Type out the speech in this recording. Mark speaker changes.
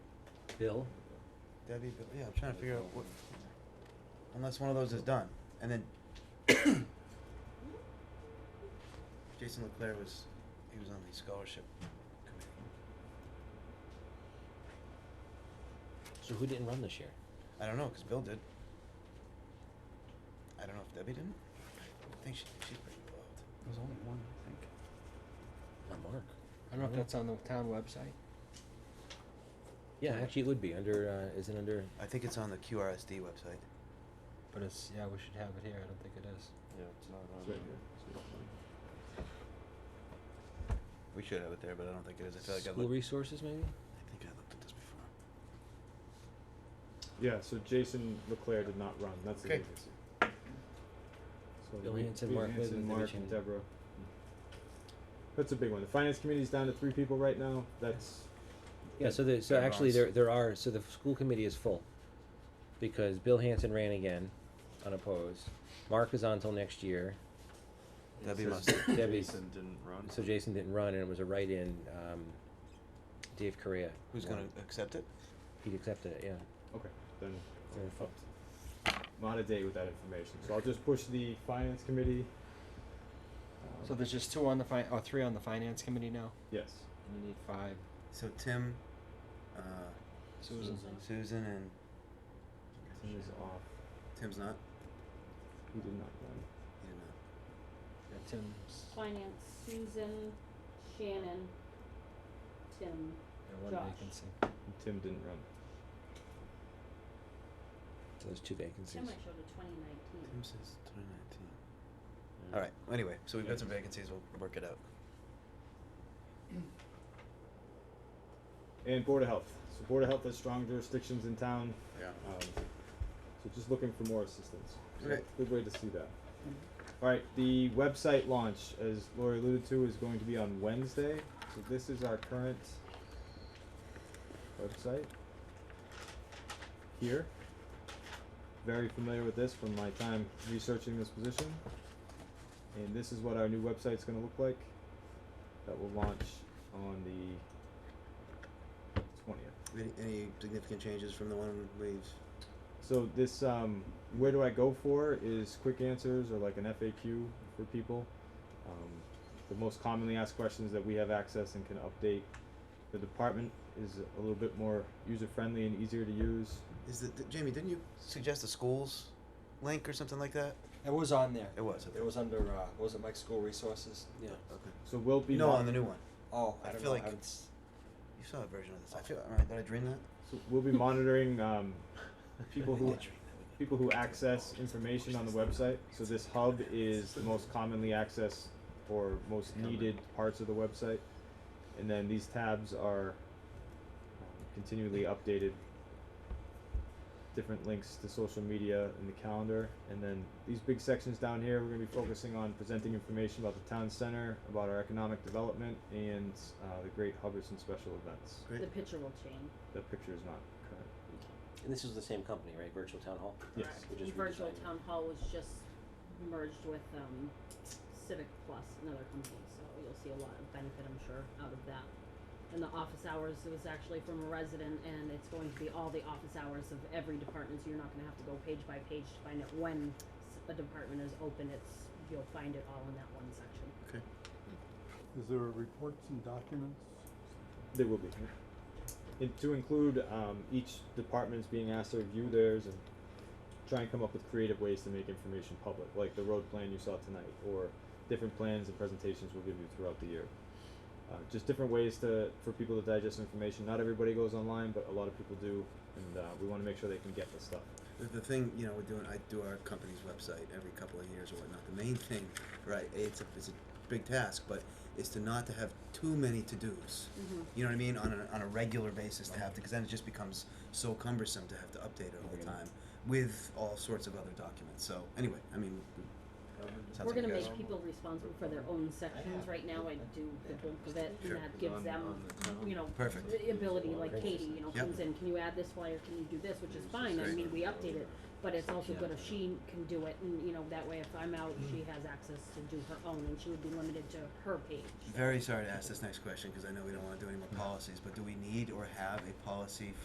Speaker 1: Bill?
Speaker 2: Debbie, Bill, yeah, I'm trying to figure out what, unless one of those is done, and then Jason Leclerc was, he was on the scholarship committee.
Speaker 3: So who didn't run this year?
Speaker 2: I don't know, cause Bill did. I don't know if Debbie didn't. I think she, she's pretty involved.
Speaker 1: There's only one, I think.
Speaker 3: Not Mark.
Speaker 4: I don't know if that's on the town website.
Speaker 3: Yeah, actually, it would be under. Uh, isn't under.
Speaker 2: I think it's on the QRSD website.
Speaker 4: But it's, yeah, we should have it here, I don't think it is.
Speaker 5: Yeah, it's not on.
Speaker 6: It's
Speaker 5: there.
Speaker 6: right here. It's in the plan.
Speaker 2: We should have it there, but I don't think it is. I feel like I
Speaker 3: School
Speaker 2: looked,
Speaker 3: resources, maybe.
Speaker 2: I think I looked at this before.
Speaker 6: Yeah, so Jason Leclaire did not run. That's the
Speaker 2: Okay.
Speaker 6: agency. So
Speaker 3: Bill
Speaker 6: we-
Speaker 3: Hanson,
Speaker 6: Bill
Speaker 3: Mark
Speaker 6: Hanson,
Speaker 3: Whitman, Debbie
Speaker 6: Mark,
Speaker 3: Cheney.
Speaker 6: and Deborah. That's a big one. The finance committee's down to three people right now. That's
Speaker 3: Yeah. So the, so
Speaker 2: Yeah,
Speaker 3: actually
Speaker 2: Ross.
Speaker 3: there there are so the school committee is full, because Bill Hanson ran again, unopposed. Mark is on till next year.
Speaker 5: It
Speaker 2: Debbie
Speaker 5: says
Speaker 2: must-
Speaker 5: that
Speaker 3: Debbie's-
Speaker 5: Jason didn't run.
Speaker 3: So Jason didn't run, and it was a write-in. Um, Dave Correa.
Speaker 2: Who's
Speaker 3: won.
Speaker 2: gonna accept it?
Speaker 3: He accepted it. Yeah.
Speaker 6: okay. Then
Speaker 3: Very
Speaker 6: I'm up to- I'm out of date with that information. So I'll just push the finance committee. Um,
Speaker 4: So there's just two on the fin- oh, three on the finance committee now,
Speaker 6: yes.
Speaker 4: and you need five.
Speaker 2: So Tim, uh,
Speaker 4: Susan.
Speaker 2: Susan and
Speaker 6: Tim is off.
Speaker 2: Tim's not.
Speaker 6: He did not run.
Speaker 2: He did not.
Speaker 4: Yeah, Tim's,
Speaker 7: Finance, Susan, Shannon, Tim.
Speaker 4: yeah, one
Speaker 7: Josh.
Speaker 4: vacancy.
Speaker 6: And Tim didn't run.
Speaker 3: So there's two vacancies.
Speaker 7: Tim I showed a twenty nineteen.
Speaker 2: Tim says 2019.
Speaker 5: Yeah.
Speaker 2: All right. Anyway, so we've got some vacancies. We'll work it out.
Speaker 6: And Board of Health. So Board of Health has strong jurisdictions in town.
Speaker 2: Yeah.
Speaker 6: Um, so just looking for more assistance. So
Speaker 2: Okay.
Speaker 6: Good way to see that. All right, the website launch, as Lori alluded to, is going to be on Wednesday. So this is our current website here. Very familiar with this from my time researching this position. And this is what our new website's going to look like. That will launch on the 20th.
Speaker 2: Any, any significant changes from the one we've?
Speaker 6: So this um, where do I go for is quick answers or like an FAQ for people. Um, the most commonly asked questions that we have access and can update. The department is a little bit more user friendly and easier to use.
Speaker 2: Is that th- Jamie? Didn't you suggest a schools link or something like that?
Speaker 4: It was on there.
Speaker 2: It was, okay.
Speaker 4: It was under, uh, what was it Mike's school resources?
Speaker 3: Yeah.
Speaker 2: Okay.
Speaker 6: So we'll be
Speaker 2: No,
Speaker 6: mon-
Speaker 2: on the new one.
Speaker 4: Oh,
Speaker 2: I
Speaker 4: I don't
Speaker 2: feel
Speaker 4: know,
Speaker 2: like-
Speaker 4: I would, s-
Speaker 2: You saw a version of this. I feel. uh, All right, did I dream that?
Speaker 6: so we'll be monitoring um, people
Speaker 2: I did
Speaker 6: who
Speaker 2: dream that.
Speaker 6: people who access information on the website. So this hub is the most commonly accessed or most needed parts of the website. And then these tabs are um, continually updated. Different links to social media and the calendar. And then these big sections down here, we're going to be focusing on presenting information about the town center, about our economic development, and uh, the great Hubbardson special events.
Speaker 2: Great.
Speaker 7: The picture will change.
Speaker 6: That picture is not current.
Speaker 3: And this was the same company, right? Virtual Town Hall.
Speaker 6: Yes.
Speaker 3: We just
Speaker 7: Virtual
Speaker 3: redesigned it.
Speaker 7: town hall was just merged with, um, Civic Plus, another company, so you'll see a lot of benefit, I'm sure, out of that. And the office hours, it was actually from a resident, and it's going to be all the office hours of every department, so you're not gonna have to go page by page to find out when s- a department is open, it's, you'll find it all in that one section.
Speaker 2: Okay.
Speaker 5: Is there reports and documents?
Speaker 6: They will be. And to include um, each department's being asked to review theirs and try and come up with creative ways to make information public, like the road plan you saw tonight, or different plans and presentations we'll give you throughout the year. Uh, just different ways to for people to digest information. Not everybody goes online, but a lot of people do, and uh, we want to make sure they can get the stuff.
Speaker 2: The, the thing you know we're doing. I do our company's website every couple of years or whatnot. The main thing, right? It's a it's a big task, but is to not to have too many to dos.
Speaker 7: Mhm.
Speaker 2: You know what I mean? On a, on a regular basis to have to, because then it just becomes so cumbersome to have to update it all the time with all sorts of other documents. So anyway, I mean, sounds
Speaker 7: We're
Speaker 2: like
Speaker 7: gonna
Speaker 2: you guys.
Speaker 7: make people responsible for their own sections right now, I do the bulk of it, and
Speaker 5: Sure.
Speaker 7: that gives
Speaker 5: On-
Speaker 7: them,
Speaker 5: on the town.
Speaker 7: you know,
Speaker 2: Perfect.
Speaker 7: the ability, like
Speaker 3: Great.
Speaker 7: Katie, you know,
Speaker 2: Yep.
Speaker 7: comes in, can you add this flyer, can you do this, which is
Speaker 5: It's
Speaker 7: fine, I
Speaker 2: great.
Speaker 7: mean, we update it, but it's also
Speaker 5: Yeah.
Speaker 7: good if she can do it, and, you know, that way if I'm out, she has access to do her own, and she would be limited to her page.
Speaker 2: Very sorry to ask this next question because I know we don't want to do any more policies, but do we need or have a policy